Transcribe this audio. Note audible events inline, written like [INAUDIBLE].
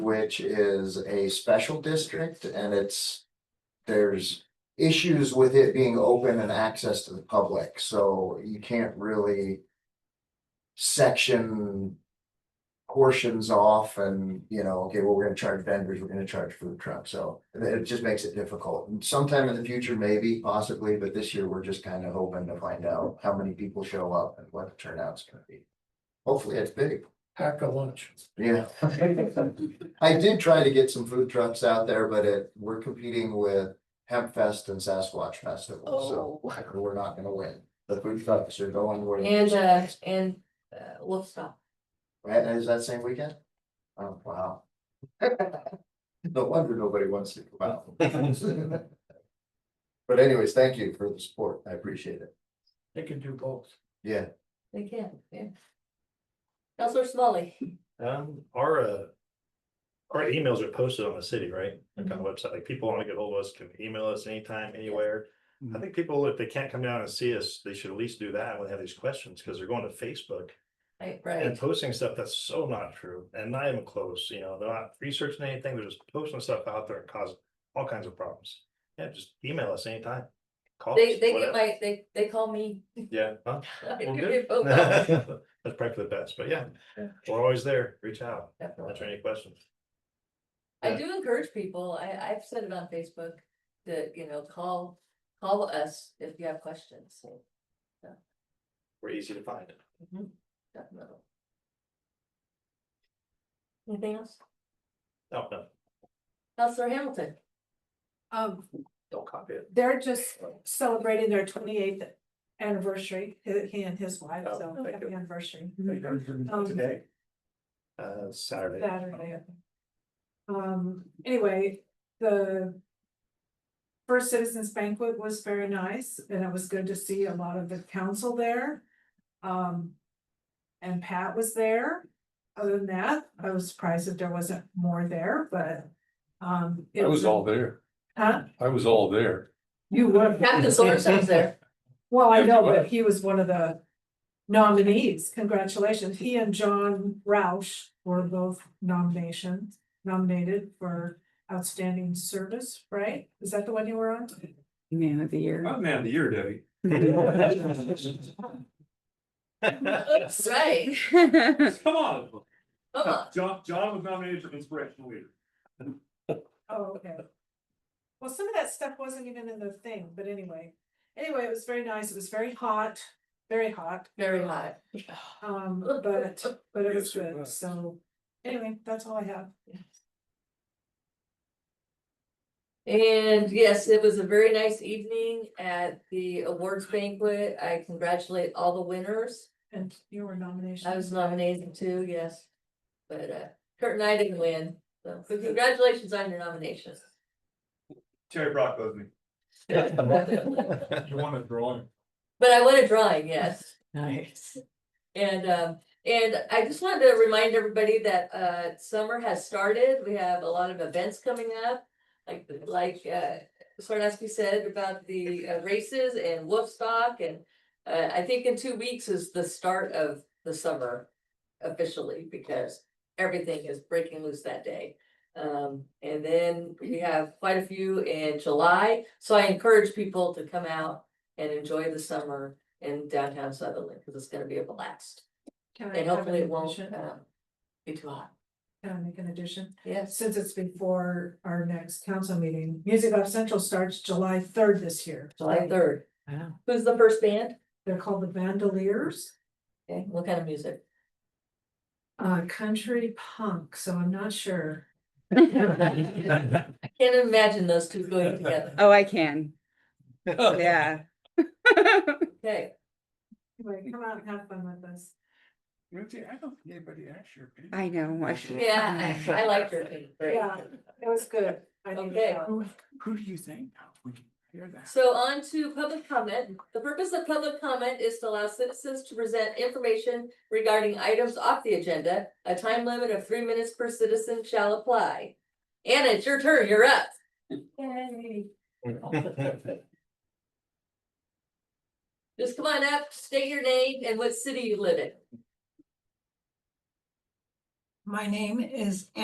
which is a special district and it's. There's issues with it being open and access to the public, so you can't really. Section. Portions off and, you know, okay, well, we're gonna charge vendors, we're gonna charge food trucks, so it- it just makes it difficult. And Sometime in the future, maybe possibly, but this year, we're just kind of hoping to find out how many people show up and what the turnout's gonna be. Hopefully, it's big, pack a [LAUGHS] lunch. yeah. I did try to get some food trucks out there, but it, we're competing with Hemp Fest and Sasquatch Festival, Oh. so [LAUGHS] we're not gonna win. The food trucks are going where. the- And uh, and uh, Wolf Stop. Right, is that same weekend? Oh, wow. [LAUGHS] No wonder nobody wants to come out. But anyways, thank you for the support, I appreciate it, They can do both. yeah. They can, yeah. Counselor Smalley. Um, our, uh. Our emails are posted on the city, right? Like on the website, like people wanna get hold of us, can email us anytime, anywhere. I Mm-hmm. think people, if they can't come down and see us, they should at least do that when they have these questions, cause they're going to Facebook. Right, And right. posting stuff that's so not true, and not even close, you know, they're not researching anything, they're just posting stuff out there and causing all kinds of problems. Yeah, just email us anytime. Call They us, they get whatever. my, they they call me. Yeah. huh? [LAUGHS] I Well, do good. [LAUGHS] get phone calls. That's probably for the best, but yeah, Yeah. we're always there, reach out, Definitely. answer any questions. I Yeah. do encourage people, I, I've said it on Facebook, that, you know, call, call us if you have questions, so, mm-hmm, We're easy to find. definitely. Anything else? No, no, [LAUGHS] Counselor Hamilton, Um, don't copy it. they're just celebrating their twenty eighth anniversary, he he and his wife, Oh, so thank happy you. anniversary. They Um, Today. Uh, Saturday. [LAUGHS] Saturday. Um, anyway, the. First Citizens Banquet was very nice, and it was good to see a lot of the council there. Um, and Pat was there. Other than that, I was surprised that there wasn't more there, but, um. it I was all there. Huh? I was all there. You were. Captain Sorensen's there, Well, I know, but he was one of the nominees, congratulations, he and John Roush were both nominations, nominated for outstanding service, right? Is that the one you were on? Man of the [LAUGHS] year. I'm man of the year, Debbie. right, Come on. come on, John, John was nominated for inspirational leader. Oh, okay. Well, some of that stuff wasn't even in the thing, but anyway, anyway, it was very nice, it was very hot, very hot, very hot. um, but, but it was Yes, it good, was. so. Anyway, that's all I have. And yes, it was a very nice evening at the awards banquet, I congratulate all the winners. And you were nominated. I was nominated too, yes. But uh, Kurt and I didn't win, so but congratulations on your nomination. Terry Brock was me. But You want a drawing? I won a drawing, yes. Nice. And um, and I just wanted to remind everybody that uh, summer has started. We have a lot of events coming up. Like, like uh, Sarnaski said about the uh, races and Woodstock and uh, I think in two weeks is the start of the summer officially because everything is breaking loose that day. Um, and then we have quite a few in July, so I encourage people to come out and enjoy the summer in downtown Sutherland because it's gonna be a blast. Can I And have an hopefully it won't addition? um, be too hot. Can I make an addition? Yes, Since it's before our next council meeting, Music Off Central starts July third this year. July third. Wow. Who's the first band? They're called the Vandaliers, Okay, what kind of music? uh, country punk, so I'm not sure. I can't imagine those two going [LAUGHS] together. Oh, I can. Yeah. [LAUGHS] Okay, Anyway, come out and have fun with us. Ruthie, I don't think anybody asked your opinion. I know. I should- yeah, I I like your thing. Great. Yeah, it was good. I think Okay. so. Who, who do you think? We can hear that. So on to public comment. The purpose of public comment is to allow citizens to present information regarding items off the agenda. A time limit of three minutes per citizen shall apply. Anna, it's your turn. You're up. Just come on up, state your name and what city you live in. My name is